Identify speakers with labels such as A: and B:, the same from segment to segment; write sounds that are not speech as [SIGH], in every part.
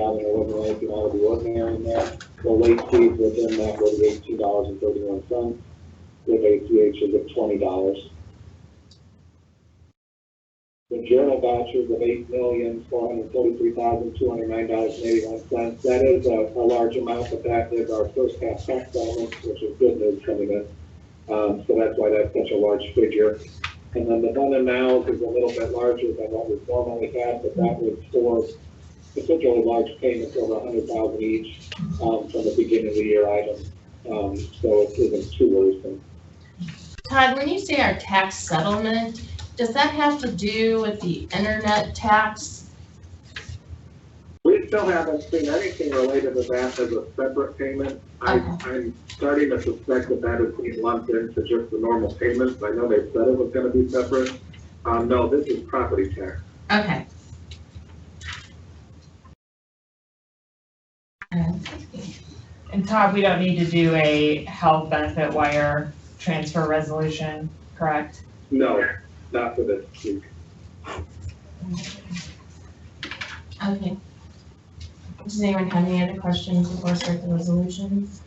A: overlay, if you want to be ordinary in there. The late fees within that would be eighteen dollars and thirty-one cents, with ACH is at twenty dollars. The journal vouchers of eight million, four hundred forty-three thousand, two hundred nine dollars and eighty-one cents. That is a, a large amount, but that is our first half tax settlement, which is good news coming in. Um, so that's why that's such a large figure. And then the other now is a little bit larger than what we normally had, but that was for particularly large payments over a hundred thousand each, um, from the beginning of the year item. Um, so it isn't too worrisome.
B: Todd, when you say our tax settlement, does that have to do with the internet tax?
A: We still haven't seen anything related to that as a separate payment. I,
B: Okay.
A: I'm starting to suspect that that is being lumped into just the normal payments. I know they said it was gonna be separate. Um, no, this is property tax.
B: Okay. Um,
C: And Todd, we don't need to do a health benefit wire transfer resolution, correct?
A: No, not for this week.
B: Okay. Does anyone have any other questions before I start the resolutions?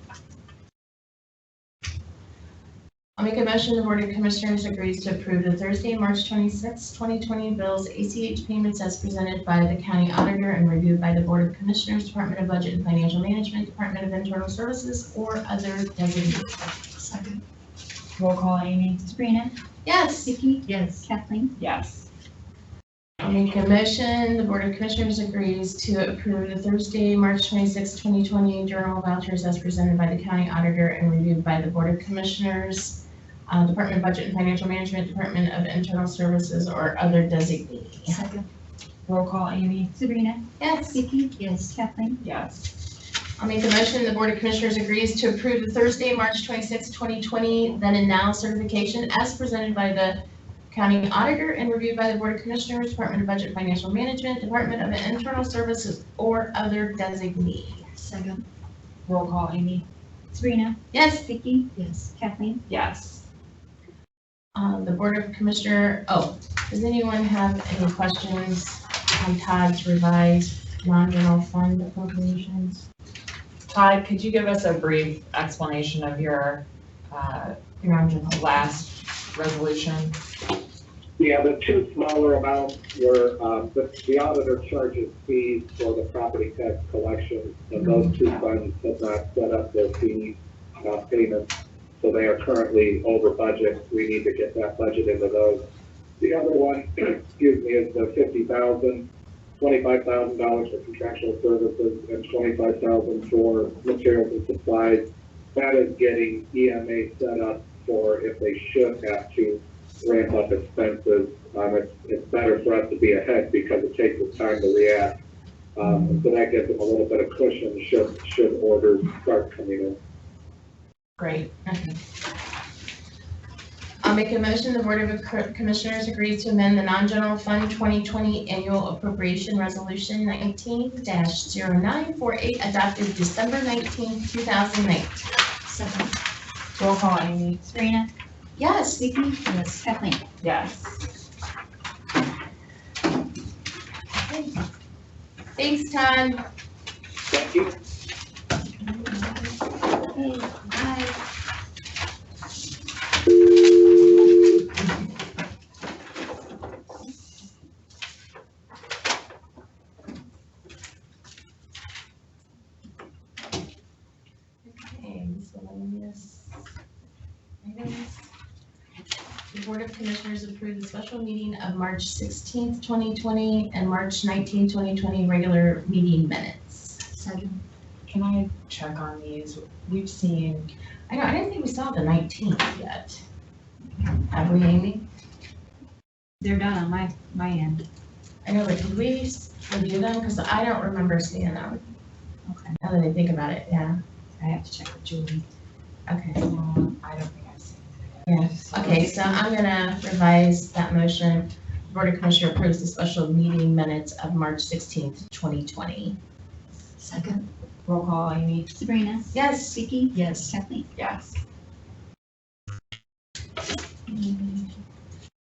B: I'll make a motion, the Board of Commissioners agrees to approve the Thursday, March 26, 2020 bills, ACH payments as presented by the county auditor and reviewed by the Board of Commissioners, Department of Budget and Financial Management, Department of Internal Services, or other designated.
D: Second.
C: Roll call, Amy?
D: Sabrina?
B: Yes.
D: Vicky?
C: Yes.
D: Kathleen?
C: Yes.
B: I Make a motion, the Board of Commissioners agrees to approve the Thursday, March 26, 2020 journal vouchers as presented by the county auditor and reviewed by the Board of Commissioners, uh, Department of Budget and Financial Management, Department of Internal Services, or other designee.
D: Second.
C: Roll call, Amy?
D: Sabrina?
B: Yes.
D: Vicky? Yes. Kathleen?
C: Yes.
B: I'll make a motion, the Board of Commissioners agrees to approve the Thursday, March 26, 2020 then and now certification as presented by the county auditor and reviewed by the Board of Commissioners, Department of Budget and Financial Management, Department of Internal Services, or other designee.
D: Second.
C: Roll call, Amy?
D: Sabrina?
B: Yes,
D: Vicky? Yes. Kathleen?
C: Yes.
B: um, the Board of Commissioner, oh, does anyone have any questions on Todd's revised non-general fund appropriations?
C: Todd, could you give us a brief explanation of your uh,
B: Non-general.
C: last resolution?
A: Yeah, the two smaller amounts were, um, the, the auditor charges fees for the property tax collection, and those two funds have not set up their fee, uh, payments, so they are currently over budget, we need to get that budget into those. The other one, [CLEARS THROAT] excuse me, is the fifty thousand, twenty-five thousand dollars for contractual services, and twenty-five thousand for materials and supplies. That is getting EMA set up for if they should have to ramp up expenses. Um, it's, it's better for us to be ahead because it takes us time to react. Um, so that gives them a little bit of cushion should, should orders start coming in.
B: Great. I'll make a motion, the Board of Co- Commissioners agrees to amend the non-general fund 2020 annual appropriation resolution 19-0948 adopted December 19, 2019.
D: Second.
C: Roll call, Amy?
D: Sabrina?
B: Yes.
D: Vicky? Yes. Kathleen?
C: Yes.
B: Thanks, Todd.
A: Thank you.
D: Okay. Bye.
B: Okay, miscellaneous items. The Board of Commissioners approved the special meeting of March 16th, 2020, and March 19th, 2020, regular meeting minutes.
D: Second.
C: Can I check on these? We've seen,
B: I know, I didn't think we saw the 19th yet. Have we, Amy?
D: They're done on my, my end.
B: I know, but did we s- review them? Because I don't remember seeing them,
D: Okay.
B: now that I think about it, yeah,
D: I have to check with Julie.
B: okay.
C: um, I don't think I've seen.
B: Yes, okay, so I'm gonna revise that motion. Board of Commissioner approves the special meeting minutes of March sixteenth, twenty twenty.
D: Second.
C: Roll call, Amy?
D: Sabrina?
B: Yes.
D: Vicky? Yes. Kathleen?
C: Yes.
B: Do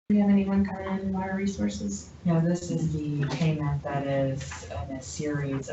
B: we have anyone coming in water resources?
C: Now, this is the payment that is in a series